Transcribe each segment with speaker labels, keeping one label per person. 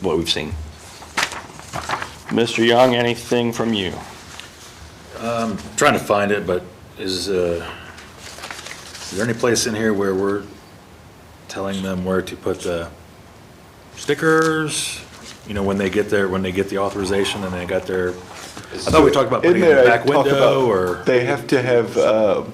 Speaker 1: what we've seen. Mr. Young, anything from you?
Speaker 2: Trying to find it, but is, uh, is there any place in here where we're telling them where to put the stickers? You know, when they get their, when they get the authorization and they got their, I thought we talked about
Speaker 3: In
Speaker 2: putting it in the
Speaker 3: there, I
Speaker 2: back
Speaker 3: talk about-
Speaker 2: window or,
Speaker 3: They have to have uh,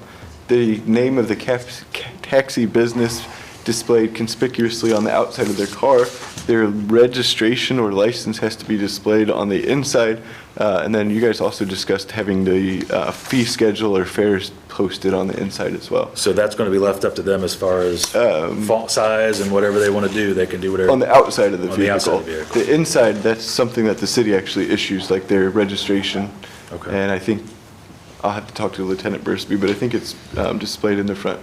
Speaker 3: the name of the cap- ca- taxi business displayed conspicuously on the outside of their car. Their registration or license has to be displayed on the inside. Uh, And then you guys also discussed having the uh, fee schedule or fares posted on the inside as well.
Speaker 2: so that's gonna be left up to them as far as font size and whatever they wanna do, they can do whatever.
Speaker 3: Um, On the outside of the
Speaker 2: On the outside
Speaker 3: vehicle.
Speaker 2: of the vehicle.
Speaker 3: The inside, that's something that the city actually issues, like their registration.
Speaker 2: Okay.
Speaker 3: And I think, I'll have to talk to Lieutenant Bursby, but I think it's um, displayed in the front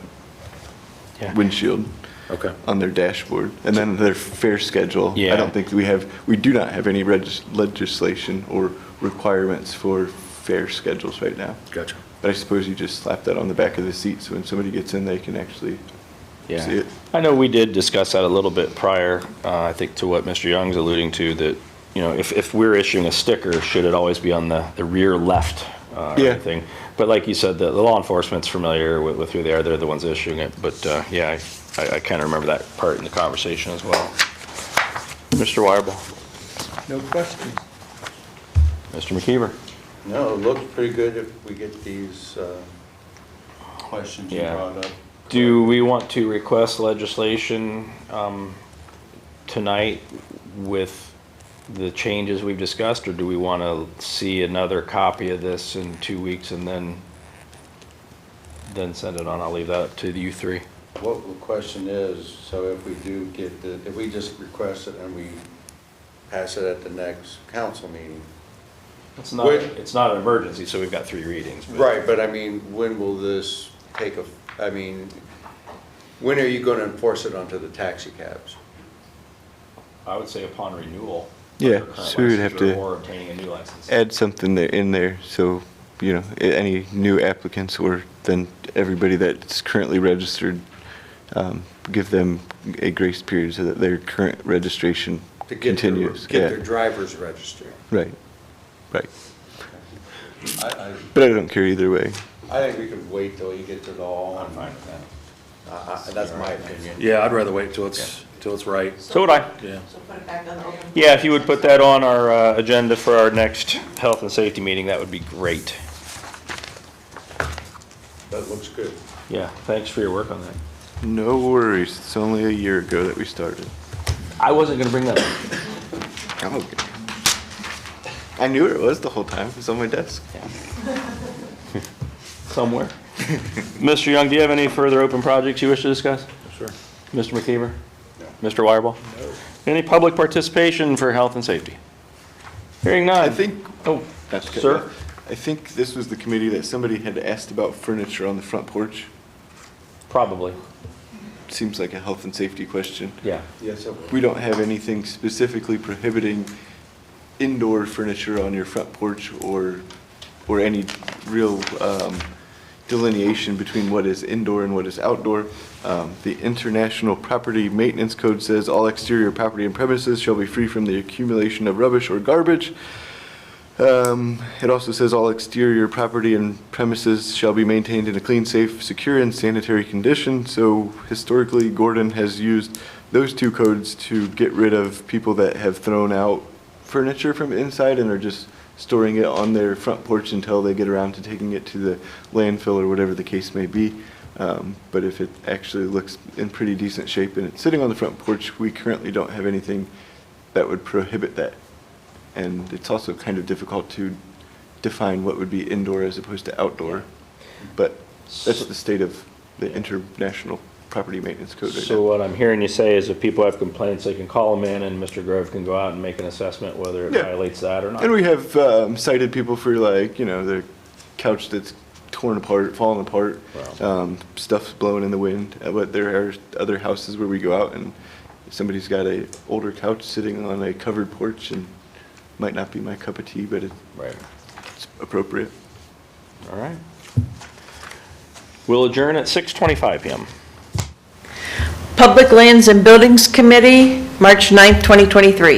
Speaker 1: Yeah.
Speaker 3: windshield
Speaker 2: Okay,
Speaker 3: on their dashboard. And then their fare schedule. I
Speaker 1: Yeah.
Speaker 3: don't think we have, we do not have any regis- legislation or requirements for fare schedules right now.
Speaker 2: gotcha.
Speaker 3: But I suppose you just slap that on the back of the seat, so when somebody gets in, they can actually see
Speaker 1: Yeah.
Speaker 3: it.
Speaker 1: I know we did discuss that a little bit prior, uh, I think to what Mr. Young's alluding to, that, you know, if, if we're issuing a sticker, should it always be on the, the rear left uh, or
Speaker 3: Yeah.
Speaker 1: anything? But like you said, the, the law enforcement's familiar with, with who they are, they're the ones issuing it, but, uh, yeah, I, I kind of remember that part in the conversation as well. Mr. Wireball?
Speaker 4: No questions.
Speaker 1: Mr. McKeever?
Speaker 4: No, it looks pretty good if we get these uh, questions you
Speaker 1: Yeah.
Speaker 4: brought up.
Speaker 1: Do we want to request legislation um, tonight with the changes we've discussed, or do we want to see another copy of this in two weeks and then, then send it on? I'll leave that up to you three.
Speaker 4: What the question is, so if we do get the, if we just request it and we pass it at the next council meeting.
Speaker 1: It's
Speaker 4: not- Wait.
Speaker 1: it's not an emergency, so we've got three readings.
Speaker 4: Right, but I mean, when will this take a, I mean, when are you gonna enforce it onto the taxi cabs?
Speaker 1: I would say upon renewal.
Speaker 3: Yeah, so we would have to.
Speaker 1: Or obtaining a new license.
Speaker 3: add something there in there, so, you know, a- any new applicants or then everybody that's currently registered, um, give them a grace period so that their current registration
Speaker 4: To get their-
Speaker 3: continues.
Speaker 4: Get their
Speaker 3: Yeah,
Speaker 4: drivers registered.
Speaker 3: Right, right.
Speaker 4: I,
Speaker 3: But I don't care either way.
Speaker 4: I, I think we could wait till you get to the all.
Speaker 1: I'm fine with that.
Speaker 4: I- I- That's my opinion.
Speaker 2: Yeah, I'd rather wait till it's, till it's right,
Speaker 1: So would I.
Speaker 2: yeah.
Speaker 5: So put it back on the open.
Speaker 1: Yeah, if you would put that on our uh, agenda for our next health and safety meeting, that would be great.
Speaker 4: That looks good.
Speaker 1: Yeah, thanks for your work on that.
Speaker 3: No worries, it's only a year ago that we started.
Speaker 1: I wasn't gonna bring that up.
Speaker 3: I'm Oh, okay. I knew where it was the whole time, it was on my desk.
Speaker 1: Somewhere. Mr. Young, do you have any further open projects you wish to discuss?
Speaker 4: Sure.
Speaker 1: Mr. McKeever? Mr. Wireball? Any public participation for health and safety? Hearing none.
Speaker 3: I think
Speaker 1: Oh,
Speaker 3: That's good.
Speaker 1: sir?
Speaker 3: I think this was the committee that somebody had asked about furniture on the front porch.
Speaker 1: Probably,
Speaker 3: Seems like a health and safety question.
Speaker 1: yeah.
Speaker 4: Yes, it will.
Speaker 3: We don't have anything specifically prohibiting indoor furniture on your front porch or, or any real um, delineation between what is indoor and what is outdoor. Um, The International Property Maintenance Code says all exterior property and premises shall be free from the accumulation of rubbish or garbage. Um, It also says all exterior property and premises shall be maintained in a clean, safe, secure, and sanitary condition. So historically, Gordon has used those two codes to get rid of people that have thrown out furniture from inside and are just storing it on their front porch until they get around to taking it to the landfill or whatever the case may be. Um, But if it actually looks in pretty decent shape and it's sitting on the front porch, we currently don't have anything that would prohibit that. And it's also kind of difficult to define what would be indoor as opposed to outdoor. But that's the state of the International Property Maintenance Code right
Speaker 1: So
Speaker 3: now.
Speaker 1: what I'm hearing you say is if people have complaints, they can call them in and Mr. Grove can go out and make an assessment whether it
Speaker 3: Yeah.
Speaker 1: violates that or not.
Speaker 3: And we have um, cited people for like, you know, their couch that's torn apart, fallen apart,
Speaker 1: Wow.
Speaker 3: um, stuff's blowing in the wind. Uh, But there are other houses where we go out and somebody's got a older couch sitting on a covered porch and might not be my cup of tea, but it's
Speaker 1: Right,
Speaker 3: appropriate.
Speaker 1: all right. We'll adjourn at 6:25 PM.
Speaker 5: Public Lands and Buildings Committee, March 9th, 2023.